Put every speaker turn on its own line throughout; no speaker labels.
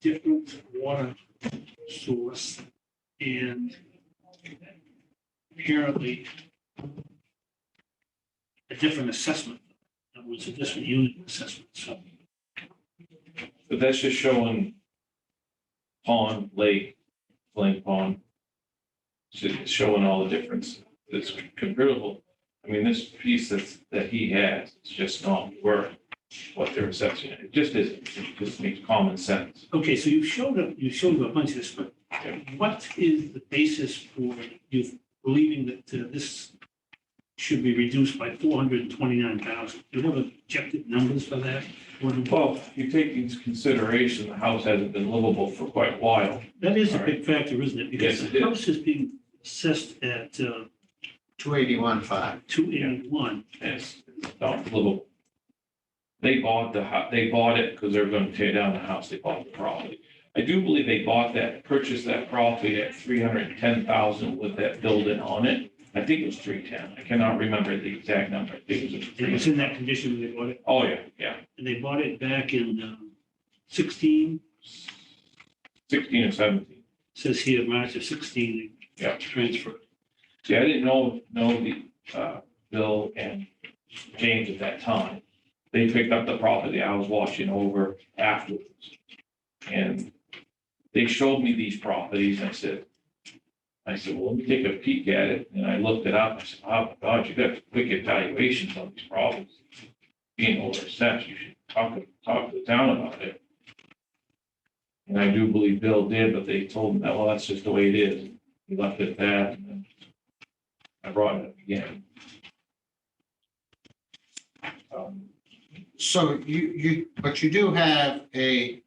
different water source and apparently a different assessment. It was a different unit assessment, so.
But that's just showing pond, lake, flame pond. So It's showing all the difference. It's comparable. I mean, this piece that's, that he has, is just not worth what they're assessing. It just isn't. It just makes common sense.
Okay, so you showed up, you showed a bunch of this, but what is the basis for you believing that uh, this should be reduced by four hundred and twenty-nine thousand? Do you have objective numbers for that? What-
Well, you take into consideration, the house hasn't been livable for quite a while.
That is a big factor, isn't it? Because
Yes, it
the
is.
house is being assessed at uh,
two eighty-one five.
two eighty-one.
and It's not livable. They bought the, hou- they bought it because they're going to tear down the house. They bought the property. I do believe they bought that, purchased that property at three hundred and ten thousand with that building on it. I think it was three ten. I cannot remember the exact number. I think it was. a
It was
310.
in that condition when they bought it,
Oh, yeah, yeah.
and they bought it back in um, sixteen,
Sixteen or seventeen.
says here, March of sixteen. they
Yeah.
Transferred.
See, I didn't know, know the, uh, Bill and James at that time. They picked up the property I was watching over afterwards. And they showed me these properties and I said, I said, well, let me take a peek at it. And I looked it up. I said, oh my God, you got quick evaluations on these problems. Being overstepped, you should talk, talk to the town about it. And I do believe Bill did, but they told him that, well, that's just the way it is. He left it at that. and then I brought it up again. Um,
So you, you, but you do have a,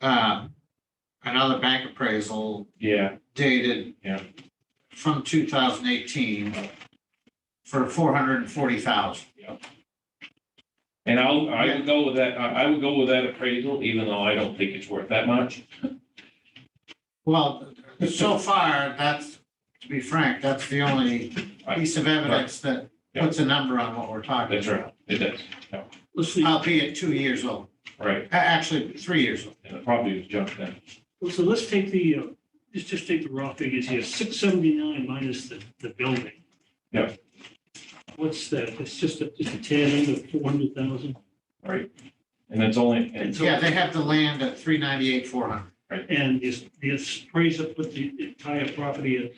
uh, another bank appraisal
Yeah,
dated
Yeah.
from two thousand eighteen for four hundred and forty thousand.
and I'll, I would go with that, I I would go with that appraisal, even though I don't think it's worth that much.
Well, so far, that's, to be frank, that's the only piece of evidence that
Yeah.
puts a number on what we're talking
That's
about.
right, it does,
Let's see,
Albeit two years old,
right,
A- actually, three years old.
and the property was junk then.
Well, so let's take the, uh, let's just take the raw figures here, six seventy-nine minus the, the building.
Yeah.
What's that? It's just a, just a tad under four hundred thousand.
And it's only, and
And
Yeah,
so,
they have the land at three ninety-eight, four hundred.
and is, the appraiser put the entire property at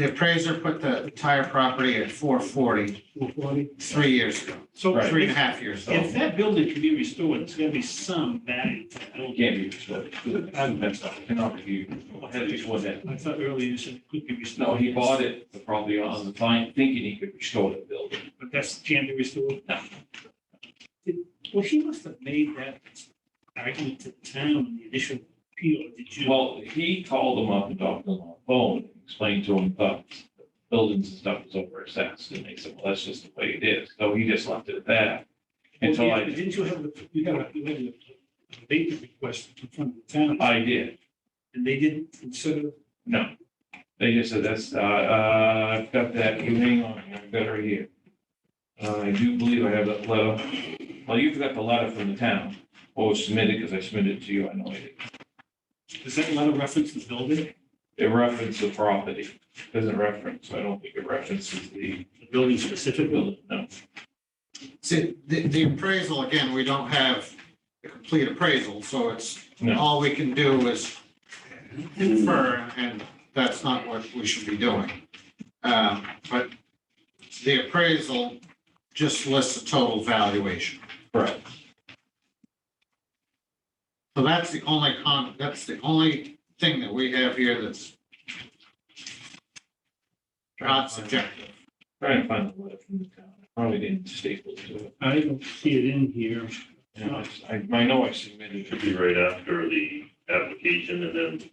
The appraiser put the entire property at four forty,
four forty?
three years ago,
So
Right.
three and a
if,
half years ago.
if that building can be restored, there's gonna be some value. to that
it
building.
can't be restored, that's not, cannot be, had it before that.
I thought earlier you said it could be restored.
No, he bought it, the property on the time, thinking he could restore the building.
But that's, can't be restored?
No.
Did- Well, he must have made that argument to the town in the initial appeal, did you?
Well, he called them up and talked to them on the phone, explained to them that buildings and stuff was over assessed, and they said, well, that's just the way it is, so he just left it at that. Until
Well, yeah, but
I,
Didn't you have, the- you had, a- you had a abatement request in front of the town,
I did,
and they didn't consider,
no. They just said, that's, uh, uh, I've got that, you hang on, I've got it right here. Uh, I do believe I have that letter, well, you've got the letter from the town, or was submitted, because I submitted it to you, I know I did.
does that letter reference the building?
It referenced the property, doesn't reference, I don't think it references the
The building specifically?
building, no.
See, the, the appraisal, again, we don't have the complete appraisal, so it's,
No.
all we can do is infer, and that's not what we should be doing. Um, But the appraisal just lists the total valuation.
Correct.
So that's the only con, that's the only thing that we have here that's not subjective.
Trying to find the letter from the town. I Probably didn't staple to it.
I don't see it in here.
You know, it's- I, I know I submitted
Should
it.
be right after the application and then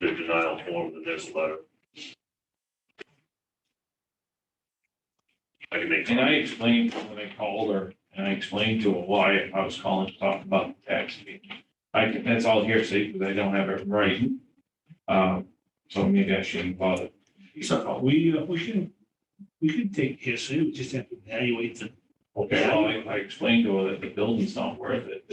the denial form, then there's a letter. I can make.
And I explained when I called her and I explained to her why I was calling to talk about the tax meeting. I can, that's all hearsay because I don't have it in writing. Um, so maybe I shouldn't bother.
So-
We, uh, we should, we could take hearsay, we just have to evaluate the
Okay, well, I, I explained to her that the building's not worth it.